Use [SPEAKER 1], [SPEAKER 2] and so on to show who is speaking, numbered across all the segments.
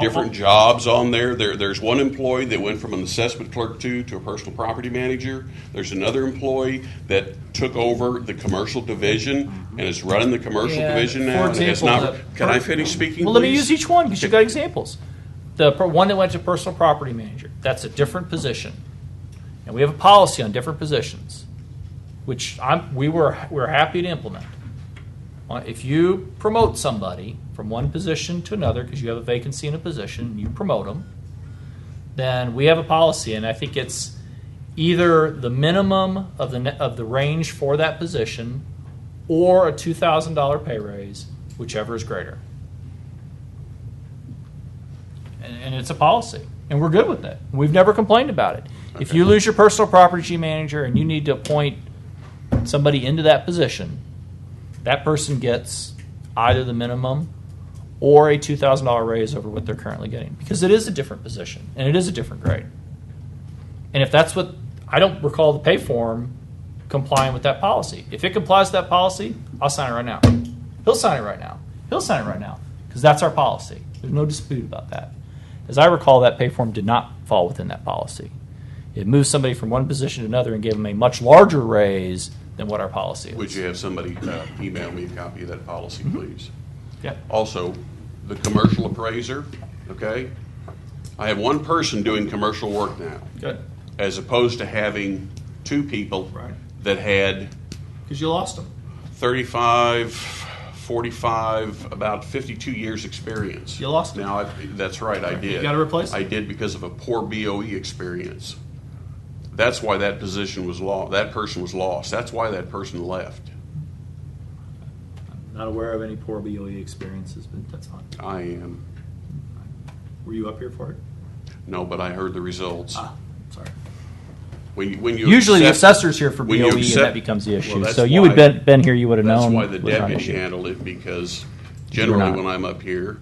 [SPEAKER 1] different
[SPEAKER 2] Uh-huh.
[SPEAKER 1] jobs on there. There, there's one employee that went from an assessment clerk to, to a personal property manager. There's another employee that took over the commercial division and is running the commercial
[SPEAKER 2] Yeah,
[SPEAKER 1] division
[SPEAKER 2] for
[SPEAKER 1] now. and has
[SPEAKER 2] example,
[SPEAKER 1] not-
[SPEAKER 2] the-
[SPEAKER 1] Can I finish speaking,
[SPEAKER 2] Well, let me
[SPEAKER 1] please?
[SPEAKER 2] use each one because you got examples. The per- one that went to personal property manager, that's a different position. And we have a policy on different positions, which I'm, we were, we we're happy to implement. Uh, If you promote somebody from one position to another, because you have a vacancy in a position, you promote them, then we have a policy, and I think it's either the minimum of the, ne- of the range for that position or a $2,000 pay raise, whichever is greater and, and it's a policy, and we're good with it. We've never complained about it. If you lose your personal property manager and you need to appoint somebody into that position, that person gets either the minimum or a two thousand dollar raise over what they're currently getting because it is a different position and it is a different grade. And if that's what I don't recall the pay form complying with that policy. If it complies with that policy, I'll sign it right now. He'll sign it right now. He'll sign it right now because that's our policy. There's no dispute about that. As I recall, that pay form did not fall within that policy. It moved somebody from one position to another and gave them a much larger raise than what our policy is.
[SPEAKER 1] Would you have somebody uh, email me a copy of that policy,
[SPEAKER 2] Mm-hmm.
[SPEAKER 1] please?
[SPEAKER 2] Yeah.
[SPEAKER 1] Also, the commercial appraiser, okay? I have one person doing commercial work now,
[SPEAKER 2] Good.
[SPEAKER 1] as opposed to having two people
[SPEAKER 2] Right.
[SPEAKER 1] that had
[SPEAKER 2] Because you lost them.
[SPEAKER 1] 35, 45, about 52 years experience.
[SPEAKER 2] You lost it.
[SPEAKER 1] Now, I- that's right, I did.
[SPEAKER 2] gotta replace it.
[SPEAKER 1] I did because of a poor BOE experience. That's why that position was lost, that person was lost. That's why that person left.
[SPEAKER 2] Not aware of any poor BOE experiences, but that's fine.
[SPEAKER 1] I am,
[SPEAKER 2] Were you up here for it?
[SPEAKER 1] no, but I heard the results.
[SPEAKER 2] Ah, sorry.
[SPEAKER 1] When you- when you
[SPEAKER 2] Usually the
[SPEAKER 1] accept-
[SPEAKER 2] assessor's here for BOE
[SPEAKER 1] when you
[SPEAKER 2] and that
[SPEAKER 1] accept-
[SPEAKER 2] becomes the
[SPEAKER 1] Well,
[SPEAKER 2] issue.
[SPEAKER 1] that's
[SPEAKER 2] So you would
[SPEAKER 1] why-
[SPEAKER 2] been, been here, you would have
[SPEAKER 1] That's
[SPEAKER 2] known.
[SPEAKER 1] why the
[SPEAKER 2] was not an
[SPEAKER 1] deputy
[SPEAKER 2] issue.
[SPEAKER 1] handled it, because generally
[SPEAKER 2] not.
[SPEAKER 1] when I'm up here,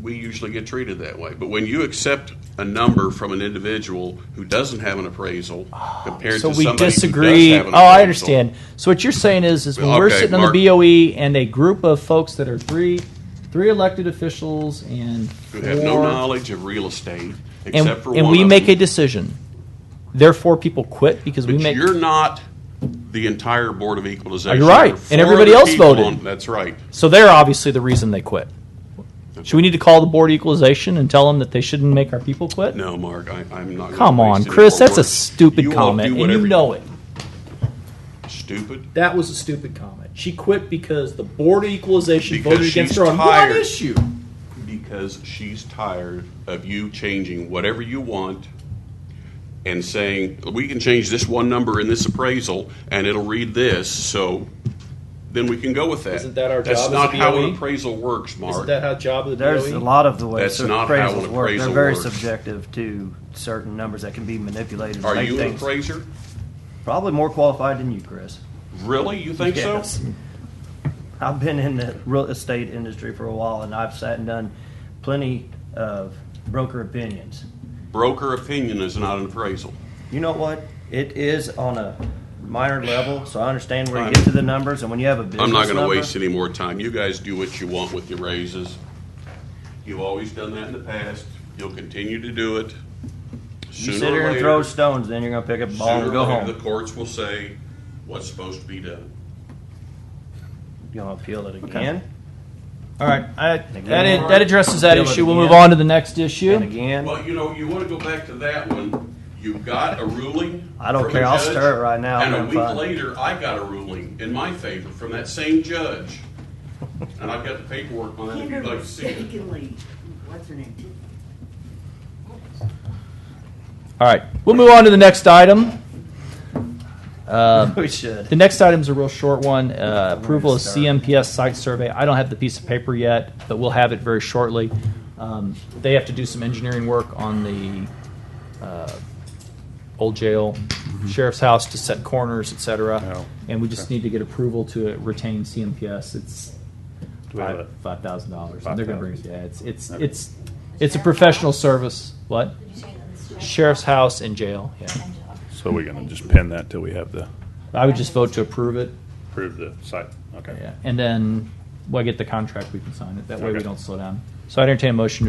[SPEAKER 1] we usually get treated that way. But when you accept a number from an individual who doesn't have an appraisal compared
[SPEAKER 2] Ah, So
[SPEAKER 1] to
[SPEAKER 2] we
[SPEAKER 1] somebody who does
[SPEAKER 2] disagree.
[SPEAKER 1] have
[SPEAKER 2] Oh,
[SPEAKER 1] an
[SPEAKER 2] I
[SPEAKER 1] appraisal,
[SPEAKER 2] understand. So what you're saying is, is when we're
[SPEAKER 1] Okay,
[SPEAKER 2] sitting on
[SPEAKER 1] Mark.
[SPEAKER 2] the BOE and a group of folks that are three, three elected officials and
[SPEAKER 1] Who have no
[SPEAKER 2] four-
[SPEAKER 1] knowledge of real estate,
[SPEAKER 2] and,
[SPEAKER 1] except for one
[SPEAKER 2] and we
[SPEAKER 1] of
[SPEAKER 2] make a
[SPEAKER 1] them.
[SPEAKER 2] decision. Therefore, people quit because we
[SPEAKER 1] But
[SPEAKER 2] make.
[SPEAKER 1] you're not the entire Board of Equalization.
[SPEAKER 2] You're
[SPEAKER 1] There are
[SPEAKER 2] right, and
[SPEAKER 1] four
[SPEAKER 2] everybody
[SPEAKER 1] other
[SPEAKER 2] else
[SPEAKER 1] people
[SPEAKER 2] voted.
[SPEAKER 1] on- That's right.
[SPEAKER 2] So they're obviously the reason they quit. Should we need to call the board of equalization and tell them that they shouldn't make our people quit?
[SPEAKER 1] No, Mark, I, I'm not. gonna
[SPEAKER 2] Come on,
[SPEAKER 1] waste any
[SPEAKER 2] Chris,
[SPEAKER 1] more
[SPEAKER 2] that's a
[SPEAKER 1] words.
[SPEAKER 2] stupid
[SPEAKER 1] You all do
[SPEAKER 2] comment, and
[SPEAKER 1] whatever
[SPEAKER 2] you know it.
[SPEAKER 1] Stupid.
[SPEAKER 2] That was a stupid comment. She quit because the board of equalization
[SPEAKER 1] Because
[SPEAKER 2] voted against
[SPEAKER 1] she's
[SPEAKER 2] her on
[SPEAKER 1] tired.
[SPEAKER 2] one issue.
[SPEAKER 1] because she's tired of you changing whatever you want and saying, we can change this one number in this appraisal and it'll read this, so then we can go with that.
[SPEAKER 2] Isn't that our
[SPEAKER 1] That's
[SPEAKER 2] job as
[SPEAKER 1] not
[SPEAKER 2] a
[SPEAKER 1] how
[SPEAKER 2] BOE?
[SPEAKER 1] an appraisal works,
[SPEAKER 2] Isn't
[SPEAKER 1] Mark.
[SPEAKER 2] that how job of the E?
[SPEAKER 3] There's
[SPEAKER 2] BOE?
[SPEAKER 3] a lot of the ways
[SPEAKER 1] That's
[SPEAKER 3] that
[SPEAKER 1] not how an
[SPEAKER 3] appraisals work.
[SPEAKER 1] appraisal
[SPEAKER 3] They're very
[SPEAKER 1] works.
[SPEAKER 3] subjective to certain numbers that can be manipulated.
[SPEAKER 1] Are
[SPEAKER 3] Like
[SPEAKER 1] you an
[SPEAKER 3] things-
[SPEAKER 1] appraiser?
[SPEAKER 3] Probably more qualified than you, Chris.
[SPEAKER 1] Really? You think so?
[SPEAKER 3] Yes. I've been in the real estate industry for a while, and I've sat and done plenty of broker opinions.
[SPEAKER 1] Broker opinion is not an appraisal.
[SPEAKER 3] You know what? It is on a minor level, so I understand where
[SPEAKER 1] I'm-
[SPEAKER 3] you get to the numbers, and when you have a business
[SPEAKER 1] I'm not going to
[SPEAKER 3] number-
[SPEAKER 1] waste any more time. You guys do what you want with your raises. You've always done that in the past. You'll continue to do it.
[SPEAKER 3] You
[SPEAKER 1] Sooner
[SPEAKER 3] sit
[SPEAKER 1] or
[SPEAKER 3] here and
[SPEAKER 1] later-
[SPEAKER 3] throw stones, then you're going to pick up a ball
[SPEAKER 1] Sooner
[SPEAKER 3] and
[SPEAKER 1] or
[SPEAKER 3] go
[SPEAKER 1] later,
[SPEAKER 3] home.
[SPEAKER 1] The courts will say what's supposed to be done.
[SPEAKER 3] You're going to appeal it again
[SPEAKER 2] All right, I, that,
[SPEAKER 3] Again.
[SPEAKER 2] ad- that addresses that
[SPEAKER 3] Deal with
[SPEAKER 2] issue. We'll
[SPEAKER 3] again.
[SPEAKER 2] move on to the next
[SPEAKER 3] and
[SPEAKER 2] issue.
[SPEAKER 3] again.
[SPEAKER 1] Well, you know, you want to go back to that one. You got a ruling.
[SPEAKER 3] I don't
[SPEAKER 1] from
[SPEAKER 3] care.
[SPEAKER 1] a
[SPEAKER 3] I'll
[SPEAKER 1] judge,
[SPEAKER 3] stir it right now.
[SPEAKER 1] And a
[SPEAKER 3] I'm
[SPEAKER 1] week
[SPEAKER 3] fine.
[SPEAKER 1] later, I got a ruling in my favor from that same judge. and I've got the paperwork on it. If
[SPEAKER 4] Kinder
[SPEAKER 1] you'd like to see it.
[SPEAKER 4] mistakenly, what's her name?
[SPEAKER 2] All right, we'll move on to the next item. Uh,
[SPEAKER 3] We should.
[SPEAKER 2] The next item is a real short one, uh, approval of CMPS site survey. I don't have the piece of paper yet, but we'll have it very shortly. Um, They have to do some engineering work on the uh, old jail,
[SPEAKER 5] Mm-hmm.
[SPEAKER 2] sheriff's house to set corners, et cetera. And we just need to get approval to retain CMPS. It's
[SPEAKER 5] Do we have it?
[SPEAKER 2] five thousand dollars. They're gonna bring us, yeah, it's, it's, it's, it's a professional service. What? Sheriff's house and jail, yeah.
[SPEAKER 5] So we're gonna just pin that till we have the,
[SPEAKER 2] I would just vote to approve it.
[SPEAKER 5] approve the site, okay.
[SPEAKER 2] Yeah, and then when I get the contract, we can sign it. That way we
[SPEAKER 5] Okay.
[SPEAKER 2] don't slow down. So I entertain a motion to